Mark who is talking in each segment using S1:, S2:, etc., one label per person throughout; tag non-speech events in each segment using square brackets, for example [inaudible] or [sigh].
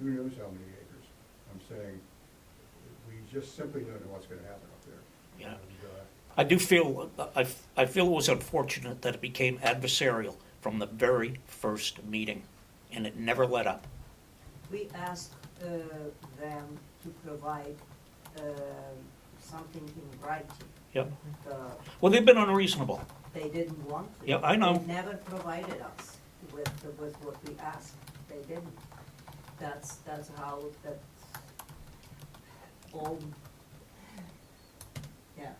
S1: who knows how many acres. I'm saying, we just simply don't know what's gonna happen up there.
S2: Yeah.
S1: And, uh,
S2: I do feel, I, I feel it was unfortunate that it became adversarial from the very first meeting, and it never let up.
S3: We asked uh, them to provide uh, something in writing.
S2: Yep.
S3: Uh,
S2: Well, they've been unreasonable.
S3: They didn't want to.
S2: Yeah, I know.
S3: They never provided us with, with what we asked. They didn't. That's, that's how, that's all, yeah,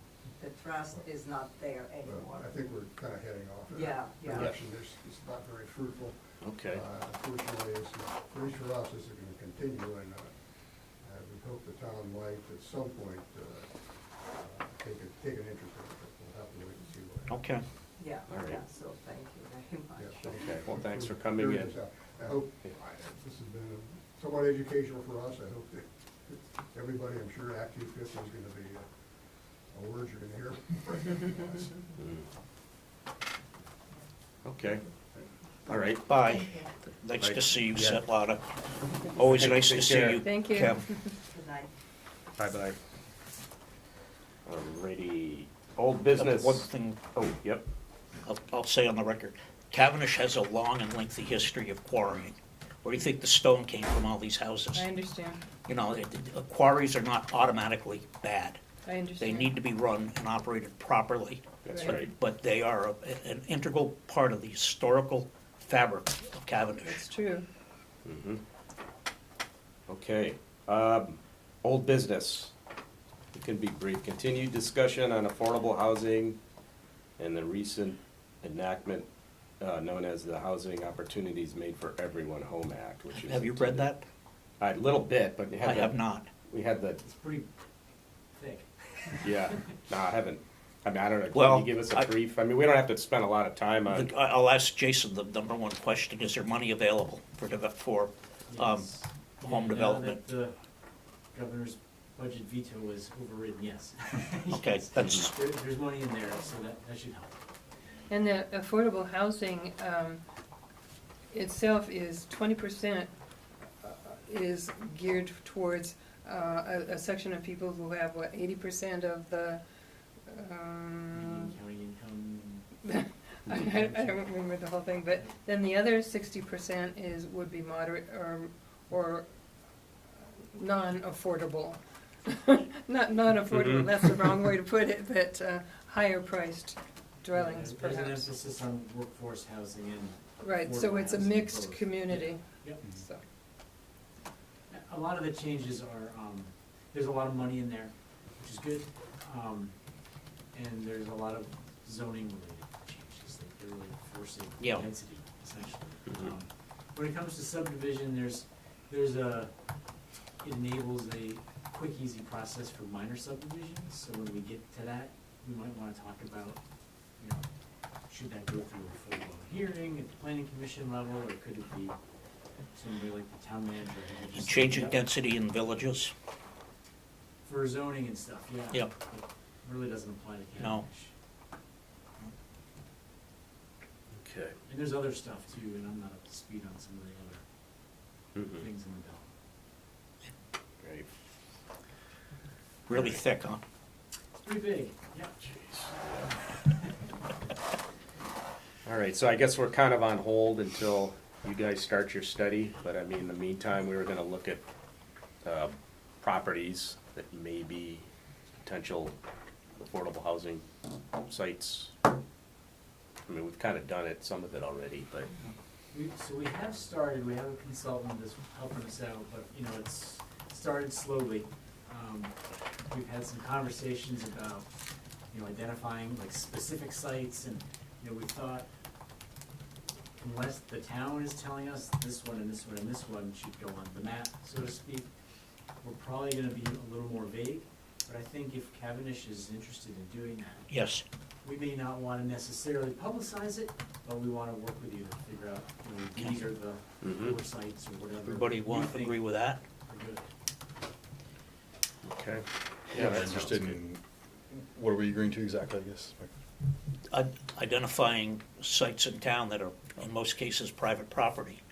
S3: the trust is not there anymore.
S1: But I think we're kinda heading off. in
S3: Yeah,
S1: that
S3: yeah.
S1: Direction, it's, it's not very fruitful.
S2: Okay.
S1: Uh, Unfortunately, it's, for each of us, this is gonna continue, and, uh, uh, we hope the town might at some point, uh, uh, take a, take an interest in it, but we'll have to wait and see what.
S2: Okay.
S3: Yeah,
S4: All right.
S3: yeah, so thank you very much.
S1: Yeah.
S4: Okay, well, thanks for coming in.
S1: I hope,
S4: Yeah.
S1: I- this has been somewhat educational for us, I hope that everybody, I'm sure Act two fifty is gonna be uh, a word you're gonna hear.
S4: Mm. Okay, all right.
S2: Bye. Nice to see you, Setlada. Always nice to see you,
S5: Thank you.
S2: Kev.
S3: Good night.
S4: Bye-bye. Alrighty, old business.
S2: One thing
S4: Oh, yep,
S2: I'll, I'll say on the record, Cavendish has a long and lengthy history of quarrying. Where do you think the stone came from all these houses?
S5: [laughs] I understand,
S2: You know, it- it- quarries are not automatically bad.
S5: I
S2: They
S5: understand.
S2: need to be run and operated properly.
S4: that's
S5: Right.
S4: right.
S2: But they are a- an integral part of the historical fabric of
S5: It's
S2: Cavendish.
S5: true.
S4: Mhm. Okay, um, old business. It can be brief. Continued discussion on affordable housing and the recent enactment uh, known as the Housing Opportunities Made for Everyone Home Act, which is.
S2: Have you read that?
S4: A little bit, but we had
S2: I have
S4: the-
S2: not.
S4: We had the,
S6: It's pretty thick.
S4: yeah, no, I haven't. I mean, I don't know,
S2: Well,
S4: can you give us
S2: I-
S4: a brief? I mean, we don't have to spend a lot of time on,
S2: The- I- I'll ask Jason the number one question, is there money available for, deve- for, um,
S6: Yes.
S2: home
S6: Now
S2: development?
S6: that The governor's budget veto was overridden, yes. [laughs]
S2: Okay,
S6: Yes.
S2: that's-
S6: There, there's money in there, so that, that should help.
S5: And the affordable housing um, itself is twenty percent uh, is geared towards uh, a, a section of people who have, what, eighty percent of the, um,
S6: Median county income,
S5: I, I- I don't remember the whole thing, but then the other sixty percent is, would be moderate or, or non-affordable. [laughs] Not, non-affordable,
S4: Mhm.
S5: that's the wrong way to put it, but uh, higher priced dwellings
S6: there's- uh, There's an
S5: perhaps.
S6: emphasis on workforce housing and
S5: Right, so
S6: affordable
S5: it's a
S6: housing
S5: mixed
S6: both.
S5: community,
S6: Yep.
S5: so,
S6: a lot of the changes are, um, there's a lot of money in there, which is good. Um, and there's a lot of zoning related changes, like they're really forcing
S2: Yeah.
S6: density essentially.
S4: Mhm.
S6: Um, When it comes to subdivision, there's, there's a, it enables a quick, easy process for minor subdivisions. So when we get to that, we might wanna talk about, you know, should that go through a full blown hearing at the planning commission level, or could it be somebody like the town manager? who just-
S2: Changing density in villages?
S6: For zoning and stuff, yeah.
S2: Yep.
S6: It Really doesn't apply to Cavendish.
S2: No.
S4: okay.
S6: And there's other stuff too, and I'm not up to speed on some of the other
S4: Mhm.
S6: things in the bill.
S4: Great.
S2: Really thick, huh?
S6: It's pretty big, yeah.
S4: All right, so I guess we're kind of on hold until you guys start your study, but I mean, in the meantime, we were gonna look at, uh, properties that may be potential affordable housing sites. I mean, we've kind of done it, some of it already, but,
S6: We, so we have started, we have a consultant that's helping us out, but, you know, it's started slowly. Um, We've had some conversations about, you know, identifying like specific sites and, you know, we thought unless the town is telling us this one and this one and this one should go on the map, so to speak, we're probably gonna be a little more vague. But I think if Cavendish is interested in doing that,
S2: Yes.
S6: we may not want to necessarily publicize it, but we want to work with you to figure out, you know, these are the
S4: Mhm.
S6: oversights or whatever.
S2: Mm-hmm. Everybody
S6: you
S2: want,
S6: think
S2: agree with that?
S6: are good.
S4: okay.
S7: Yeah, I'm
S4: that sounds
S7: interested
S4: good.
S7: in, what are we agreeing to exactly, I guess?
S2: Id- Identifying sites in town that are, in most cases, private property,